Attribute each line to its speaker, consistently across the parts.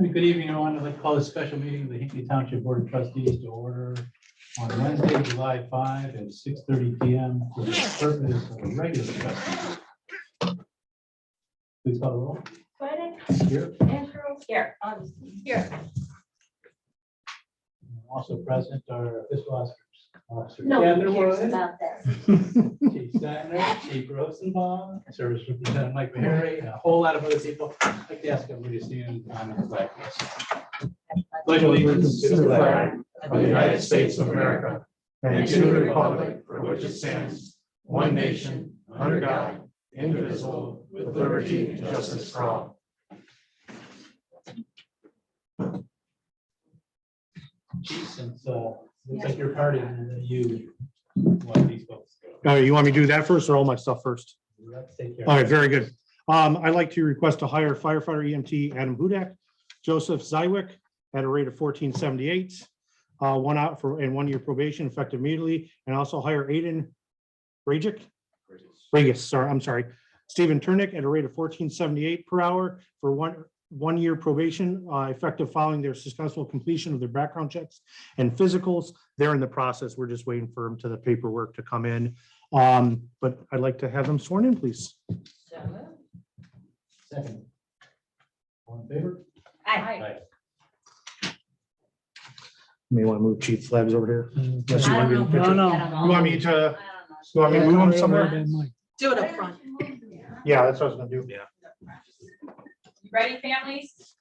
Speaker 1: Good evening, everyone. I'd like to call this special meeting of the Hinkley Township Board of Trustees to order on Wednesday, July 5 at 6:30 PM for the purpose of a regular trustee. meeting. Please call the roll.
Speaker 2: Swedick,
Speaker 1: Here,
Speaker 2: Andrew, here, um, here.
Speaker 1: also present are fiscal officers- officers.
Speaker 2: No one
Speaker 1: Heather
Speaker 2: cares
Speaker 1: Wood,
Speaker 2: about this.
Speaker 1: Chief Steiner, Chief Rosenbaum, Service Representative Mike Mahary, and a whole lot of other people. I'd like to ask everybody to stand on the flag. Pledge allegiance to the flag
Speaker 3: of the United States of America and to the republic for which it stands, one nation, under God, indivisible, with liberty and justice for all.
Speaker 1: Chief, since uh, looks like you're partying, you want these folks.
Speaker 4: Uh, you want me to do that first or all my stuff first? All right, very good. Um, I'd like to request to hire firefighter EMT Adam Hudak, Joseph Zywick at a rate of fourteen seventy-eight. Uh, one out for, and one year probation effective immediately, and also hire Aiden Ragic, Regis, sorry, I'm sorry, Stephen Turnick at a rate of fourteen seventy-eight per hour for one, one year probation, uh, effective following their successful completion of their background checks and physicals. They're in the process. We're just waiting for them to the paperwork to come in. Um, but I'd like to have them sworn in, please.
Speaker 1: Second. All in favor?
Speaker 2: I,
Speaker 4: You May want to move Chief Labs over here. Unless you
Speaker 2: I
Speaker 4: want me to
Speaker 2: don't know.
Speaker 4: picture-
Speaker 5: No, no.
Speaker 2: I
Speaker 4: You want me
Speaker 2: Uh,
Speaker 4: to, you want me to move them somewhere?
Speaker 5: Do it
Speaker 2: don't
Speaker 5: up
Speaker 2: know.
Speaker 5: front.
Speaker 4: Yeah, that's what I was gonna do.
Speaker 2: You Ready, families?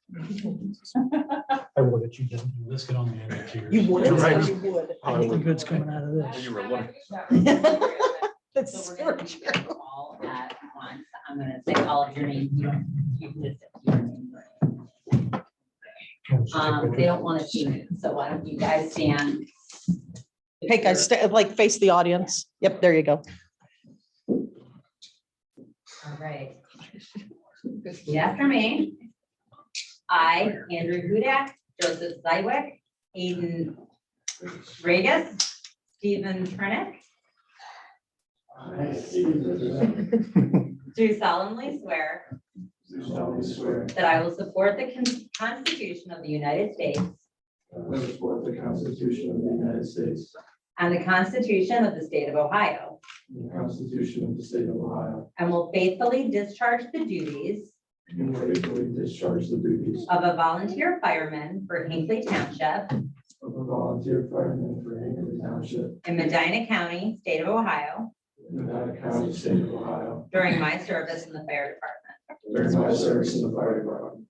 Speaker 4: I will let you do.
Speaker 1: This can only end at yours.
Speaker 5: You would,
Speaker 4: You're right.
Speaker 5: you would.
Speaker 4: I
Speaker 5: I think the
Speaker 4: would.
Speaker 5: good's coming out of this.
Speaker 2: you were one.
Speaker 5: That's
Speaker 2: So we're gonna do them all at once. I'm gonna say all of your names. You don't- you just say your name. Um, they don't wanna see you, so why don't you guys stand?
Speaker 5: Hey, guys, sta- like face the audience. Yep, there you go.
Speaker 2: All right. Repeat after me. I, Andrew Hudak, Joseph Zywick, Aiden Regis, Stephen Trenick. Do solemnly swear
Speaker 3: Do solemnly swear
Speaker 2: that I will support the Con- Constitution of the United States
Speaker 3: that I will support the Constitution of the United States
Speaker 2: and the Constitution of the State of Ohio,
Speaker 3: and the Constitution of the State of Ohio,
Speaker 2: and will faithfully discharge the duties
Speaker 3: and faithfully discharge the duties
Speaker 2: of a volunteer fireman for Hinkley Township
Speaker 3: of a volunteer fireman for Hinkley Township
Speaker 2: in Medina County, State of Ohio,
Speaker 3: in Nevada County, State of Ohio,
Speaker 2: during my service in the fire department.
Speaker 3: during my service in the fire department.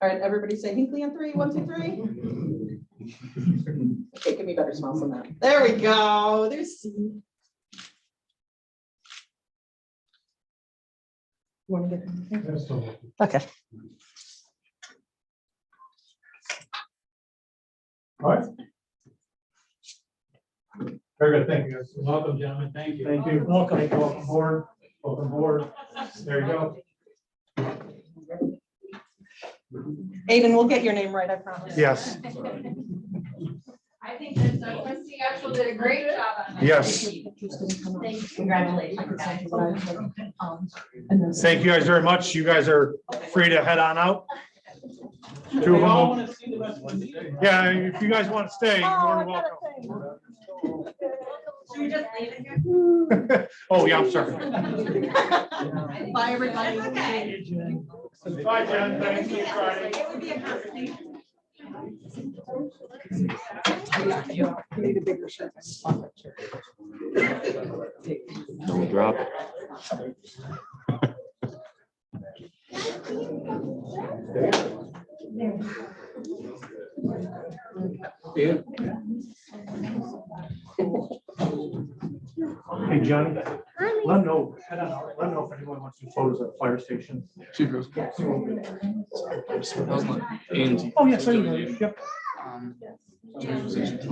Speaker 5: All right, everybody say Hinkley on three, one, two, three. Okay, give me better smiles than that. There we go. There's. You Want to get? Um, Okay.
Speaker 1: Very good, thank you. Welcome, gentlemen, thank you.
Speaker 4: Thank you. Welcome, welcome board, welcome board. There you go.
Speaker 5: Aiden, we'll get your name right, I promise.
Speaker 4: Yes,
Speaker 6: I think that uh, trustee Axel did a great job on that.
Speaker 4: yes.
Speaker 2: Congratulations, guys.
Speaker 4: Thank you guys very much. You guys are free to head on out. Two of
Speaker 1: We all
Speaker 4: them.
Speaker 1: wanna see the rest of the meeting.
Speaker 4: Yeah, if you guys want to stay, you're more than
Speaker 2: Should we just leave it here?
Speaker 4: welcome. Oh, yeah, I'm sorry.
Speaker 5: Bye, everybody.
Speaker 2: It's okay.
Speaker 4: Bye, Jen. Thanks. Keep trying.
Speaker 2: It would be a conversation.
Speaker 5: You need a bigger shirt.
Speaker 7: Don't drop it.
Speaker 4: Hey, Johnny. Let know, head on out. Let know if anyone wants to photos at the fire station.
Speaker 8: She goes. That was my Angie. Oh,
Speaker 4: Oh, yes, I do. Yep.
Speaker 8: Um, she was-